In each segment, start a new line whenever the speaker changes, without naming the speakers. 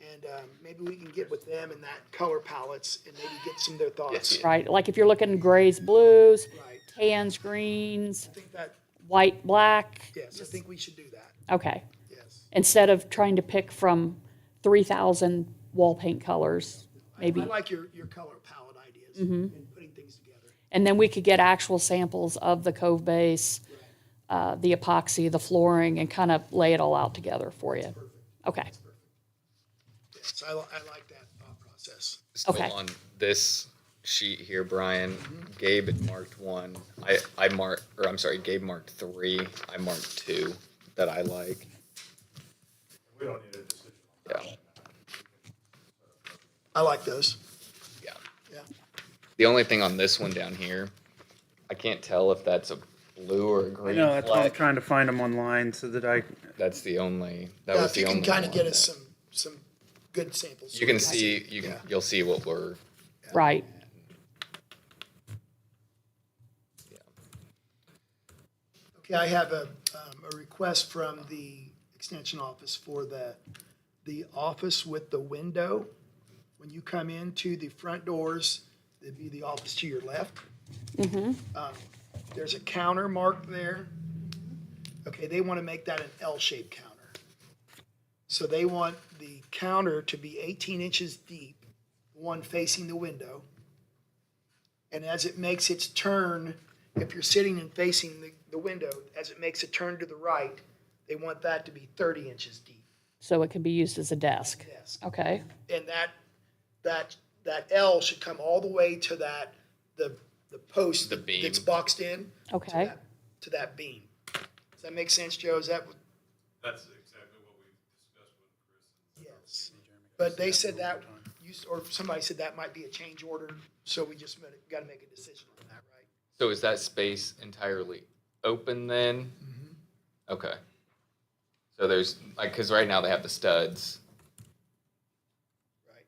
And um, maybe we can get with them and that color palettes and maybe get some of their thoughts.
Yes, yeah.
right? Like if you're looking grays, blues,
Right.
tans, greens,
I think that,
white, black.
yes, I think we should do that,
Okay.
yes.
Instead of trying to pick from 3,000 wall paint colors,
I-
maybe.
I like your, your color palette ideas and putting things together.
And then we could get actual samples of the cove base, uh, the epoxy, the flooring, and kind of lay it all out together for you. Okay.
Yes, I, li- I like that thought process.
Still
Okay.
on this sheet here, Brian, Gabe had marked one. I, I marked, or I'm sorry, Gabe marked three. I marked two that I like.
We don't need a decision.
Yeah,
I like those,
yeah.
yeah.
The only thing on this one down here, I can't tell if that's a blue or a green
No, that's why I'm
flag.
trying to find them online so that I,
That's the only, that
Now,
was
if
the
you
only
can
one.
kind of get
that-
us some, some good samples.
You can see, you can,
Yeah.
you'll see what we're,
Right.
Okay, I have a, um, a request from the extension office for the, the office with the window. When you come into the front doors, it'd be the office to your left. Um, There's a counter marked there. Okay, they want to make that an L-shaped counter. So they want the counter to be 18 inches deep, one facing the window. And as it makes its turn, if you're sitting and facing the, the window, as it makes a turn to the right, they want that to be 30 inches deep.
So it could be used as a desk.
Yes.
Okay.
And that, that, that L should come all the way to that, the, the post.
The beam.
That's boxed in. to
Okay.
that- To that beam. Does that make sense, Joe? Is that, what-
That's exactly what we discussed with Chris.
yes. But they said that, you, s- or somebody said that might be a change order, so we just got to make a decision on that, right?
so is that space entirely open then? Okay. So there's, like, cause right now they have the studs
Right.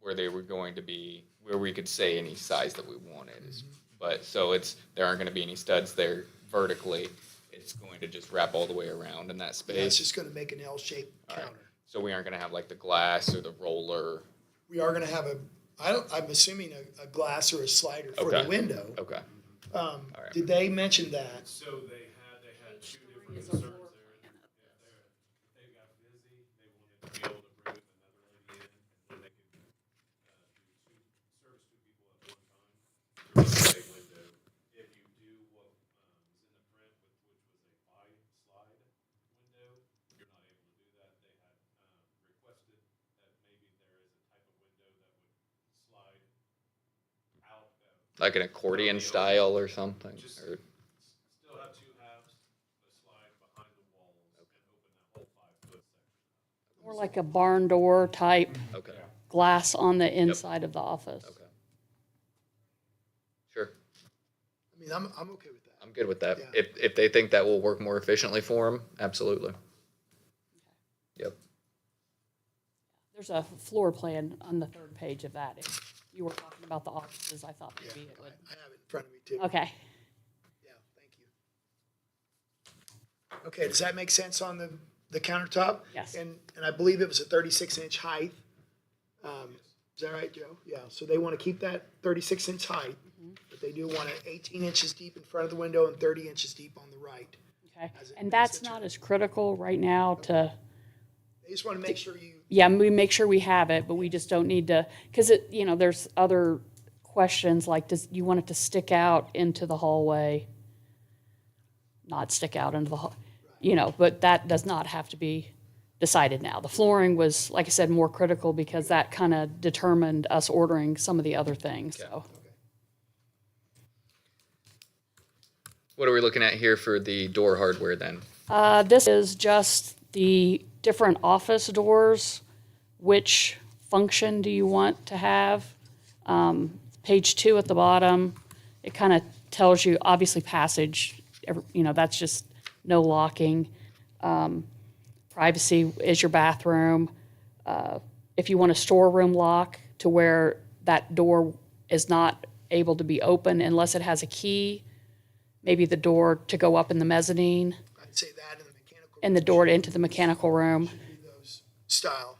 where they were going to be, where we could say any size that we wanted. is- But, so it's, there aren't gonna be any studs there vertically. It's going to just wrap all the way around in that
Yeah, it's
space.
just going to make an L-shaped counter.
So we aren't gonna have like the glass or the roller.
We are going to have a, I don't, I'm assuming a, a glass or a slider for the
Okay.
window.
Okay.
Um,
All right.
Did they mention that?
So they had, they had two different concerns there. Yeah, they're- They got busy, they wanted to be able to bring another lady in, and then they could, uh, do two, service two people at one time. There was a big window. If you do what, um, is in the print, which which was a slide, slide window, you're not able to do that. They had, um, requested that maybe there is a type of window that would slide out, that would
Like an accordion style or something?
Just-
or-
Still have two halves, a slide behind the walls and open that whole five foot section.
Or like a barn door type
Okay,
glass on the inside of the office.
okay. Sure,
I mean, I'm, I'm okay with that.
I'm good with that.
Yeah.
If, if they think that will work more efficiently for them, absolutely. Yep,
There's a floor plan on the third page of that. If you were talking about the offices, I thought maybe it would.
I have it in front of me too.
Okay.
Yeah, thank you. Okay, does that make sense on the, the countertop?
Yes.
And, and I believe it was a thirty-six inch height. Um, Is that right, Joe? Yeah, so they want to keep that thirty-six inch height,
Mm-hmm.
but they do want it eighteen inches deep in front of the window and thirty inches deep on the right.
Okay.
As it
And
makes
that's
it
not as critical right now to,
They just want to make sure you,
yeah, we make sure we have it, but we just don't need to, because it, you know, there's other questions like, does, you want it to stick out into the hallway? Not stick out into the hall, you know, but that does not have to be decided now. The flooring was, like I said, more critical because that kind of determined us ordering some of the other things, so.
what are we looking at here for the door hardware then?
Uh, this is just the different office doors. Which function do you want to have? Um, page two at the bottom, it kind of tells you, obviously passage, every- you know, that's just no locking. Um, privacy is your bathroom. Uh, if you want a storeroom lock to where that door is not able to be open unless it has a key, maybe the door to go up in the mezzanine
I'd say that in the mechanical
and the door into the mechanical room.
those style.